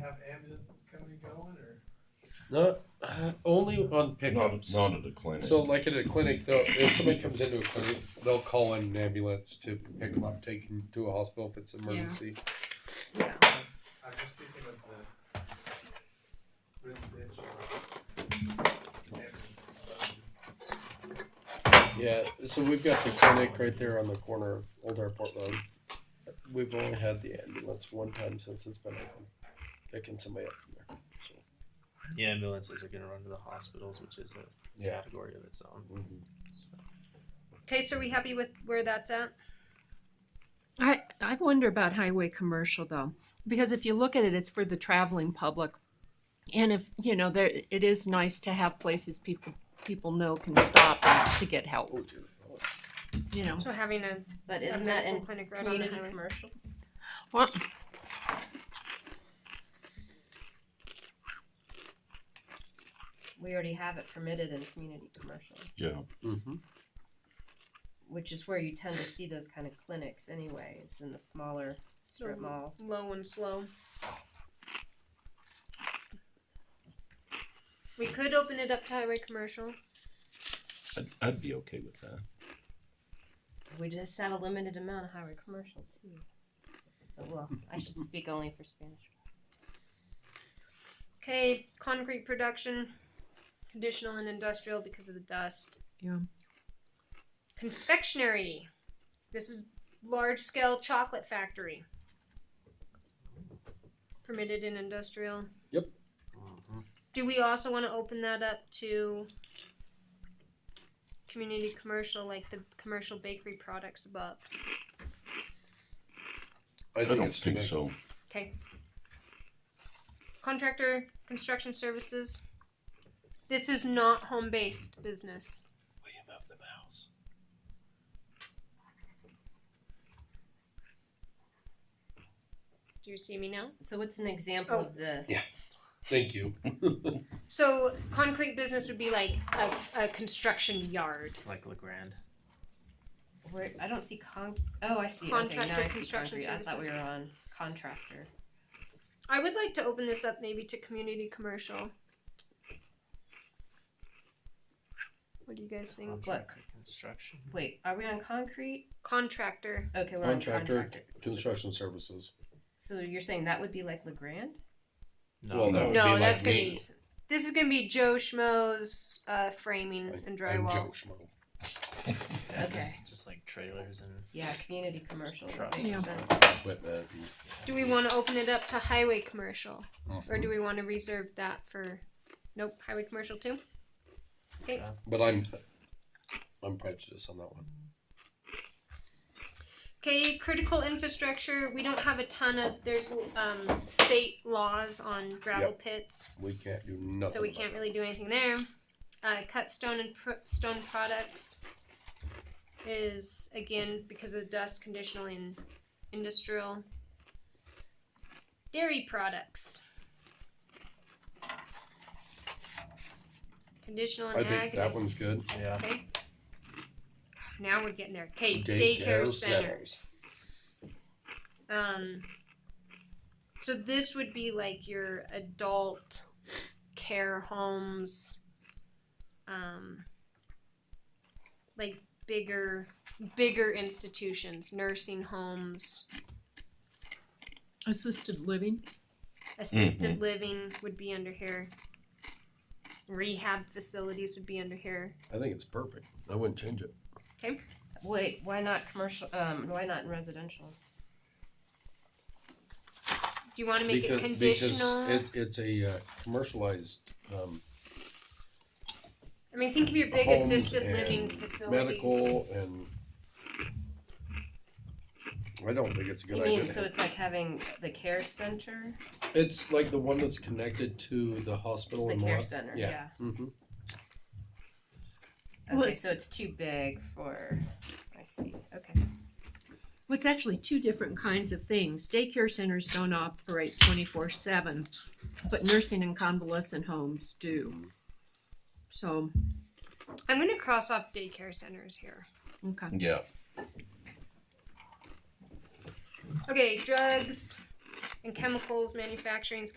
have ambulances coming and going, or? No, only on Not, pickups. not at the clinic. So, like at a clinic, though, if somebody comes into a clinic, they'll call in an ambulance to pick them up, take them to a hospital if it's an emergency. I'm just thinking of the residential. ambulance. Yeah. so we've got the clinic right there on the corner of Old Airport Road. We've only had the ambulance one time since it's been open, picking somebody up from there. So. Yeah, ambulances are gonna run to the hospitals, which is a category of its own. Mm-hmm. Mhm. So, Okay, so are we happy with where that's at? I, I wonder about highway commercial though, because if you look at it, it's for the traveling public. And if, you know, there, it is nice to have places people, people know can stop and to get help, Oh, dear. you know. So having a, But a isn't that medical in clinic right on the community highway. commercial? Well, We already have it permitted in community commercial, Yeah, Mhm. which is where you tend to see those kind of clinics anyway. It's in the smaller strip So- malls. Low and slow. We could open it up to highway commercial. I'd, I'd be okay with that. We just have a limited amount of highway commercial too. But well, I should speak only for Spanish. Okay, concrete production, conditional and industrial because of the dust. Yeah. Confectionery. This is large scale chocolate factory. Permitted in industrial. Yep. Do we also want to open that up to community commercial, like the commercial bakery products above? I don't it's too think big. so. Okay. Contractor construction services. This is not home based business. William of the Mouse. Do you see me now? So what's an example Oh. of this? Yeah. Thank you. So concrete business would be like a, a construction yard. Like Legrand. Where, I don't see con. Oh, I see. okay, now Contractor I see construction concrete. I thought we services. were on contractor. I would like to open this up maybe to community commercial. What do you guys think? Contractor Construction. Wait, are we on concrete? Contractor. Okay, we're on Contractor, contractor. construction services. So you're saying that would be like Legrand? Well, that would be No, like that's gonna me. be. This is gonna be Joe Schmo's uh, framing Like, and I'm Joe drywall. Schmo. Yeah, Okay. just, just like trailers and Yeah, community commercial. would Trucks. make Yeah. sense. Equipment. and- Do we want to open it up to highway commercial, or do we want to reserve that for? Nope, highway commercial too. But I'm, I'm prejudiced on that one. Okay, critical infrastructure. We don't have a ton of. There's um, state laws on gravel pits, We can't do nothing. so we about can't really do anything there. Uh, cut stone and pr- stone products is again because of dust, conditional and industrial. Dairy products. Conditional it. I and think ag. that one's good. yeah. Okay. Now we're getting there. Okay, Daycare daycare centers. centers. Um, so this would be like your adult care homes, um, like bigger, bigger institutions, nursing homes, Assisted living. assisted living would be under here. Rehab facilities would be under here. I think it's perfect. I wouldn't change it. Wait, why not commercial? Um, why not in residential? Do you want to make it conditional? Because it, it's a uh, commercialized um, I mean, think of your big Homes assisted and living facilities. medical and. I don't think it's a good you idea. mean so it's like having the care center, It's like the one that's connected to the hospital the in care Milwaukee. center? yeah. Yeah. hmm Okay, Well, so it's- it's too big for. I see. Okay. Well, it's actually two different kinds of things. Daycare centers don't operate twenty-four seven, but nursing and convalescent homes do. So, I'm going to cross off daycare centers here. okay. Yeah. Okay, drugs and chemicals manufacturing